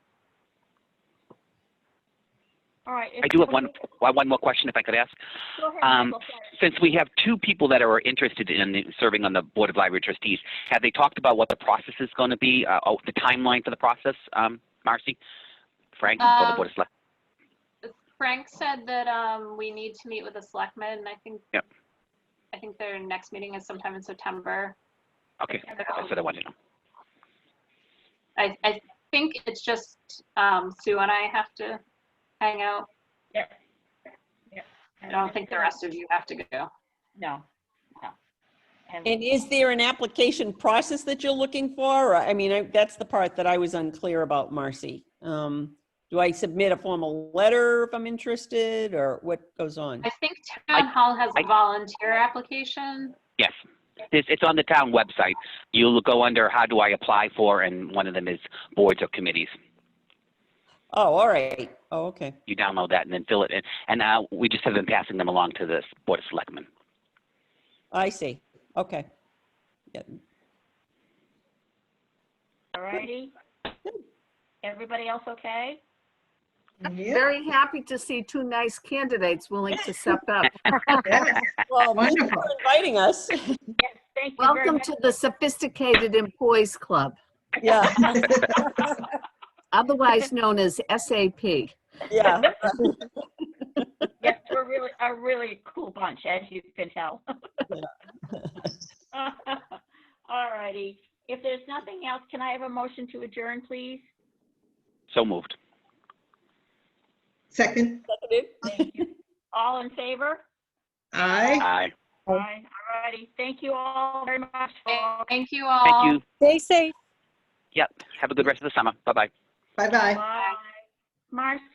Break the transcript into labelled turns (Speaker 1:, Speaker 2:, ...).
Speaker 1: All right. if
Speaker 2: I do have one,
Speaker 1: nobody-
Speaker 2: one more question if I could ask.
Speaker 1: Go ahead,
Speaker 2: um,
Speaker 1: Michael, sorry.
Speaker 2: Since we have two people that are interested in serving on the Board of Library Trustees, have they talked about what the process is going to be, uh, oh, the timeline for the process, um, Marcy? Frank, or the
Speaker 3: Um,
Speaker 2: Board of Select?
Speaker 3: Frank said that um, we need to meet with the selectmen, and I think.
Speaker 2: Yep.
Speaker 3: I think their next meeting is sometime in September.
Speaker 2: Okay, that's what I wanted to know.
Speaker 3: I, I think it's just um, Sue and I have to hang out. I don't think the rest of you have to go.
Speaker 4: No, no. And
Speaker 5: And is there an application process that you're looking for? Or- I mean, I- that's the part that I was unclear about, Marcy. Um, Do I submit a formal letter if I'm interested, or what goes on?
Speaker 3: I think town hall has
Speaker 2: I-
Speaker 3: a volunteer application.
Speaker 2: Yes, it's, it's on the town website. You'll go under how do I apply for, and one of them is boards or committees.
Speaker 5: Oh, all right. Oh, okay.
Speaker 2: You download that and then fill it in. And uh, we just have been passing them along to the Board of Selectmen.
Speaker 5: I see. Okay. Yeah.
Speaker 4: alrighty. Everybody else okay?
Speaker 6: Very happy to see two nice candidates willing to step up.
Speaker 5: Well, thank you
Speaker 7: Wonderful.
Speaker 5: for inviting us.
Speaker 4: Yes, thank you very
Speaker 6: Welcome
Speaker 4: much.
Speaker 6: to the Sophisticated Employees Club,
Speaker 5: Yeah,
Speaker 6: otherwise known as SAP.
Speaker 5: yeah.
Speaker 4: Yes, we're really, a really cool bunch, as you can tell. Alrighty, if there's nothing else, can I have a motion to adjourn, please?
Speaker 2: So moved.
Speaker 7: Second,
Speaker 4: Thank you. All in favor?
Speaker 7: aye.
Speaker 2: Aye.
Speaker 4: Aye, alrighty, thank you all very much. folks.
Speaker 3: Thank you all.
Speaker 2: Thank you.
Speaker 8: Stay safe.
Speaker 2: Yep. Have a good rest of the summer. Bye-bye.
Speaker 7: Bye-bye.
Speaker 4: Bye. Marcy?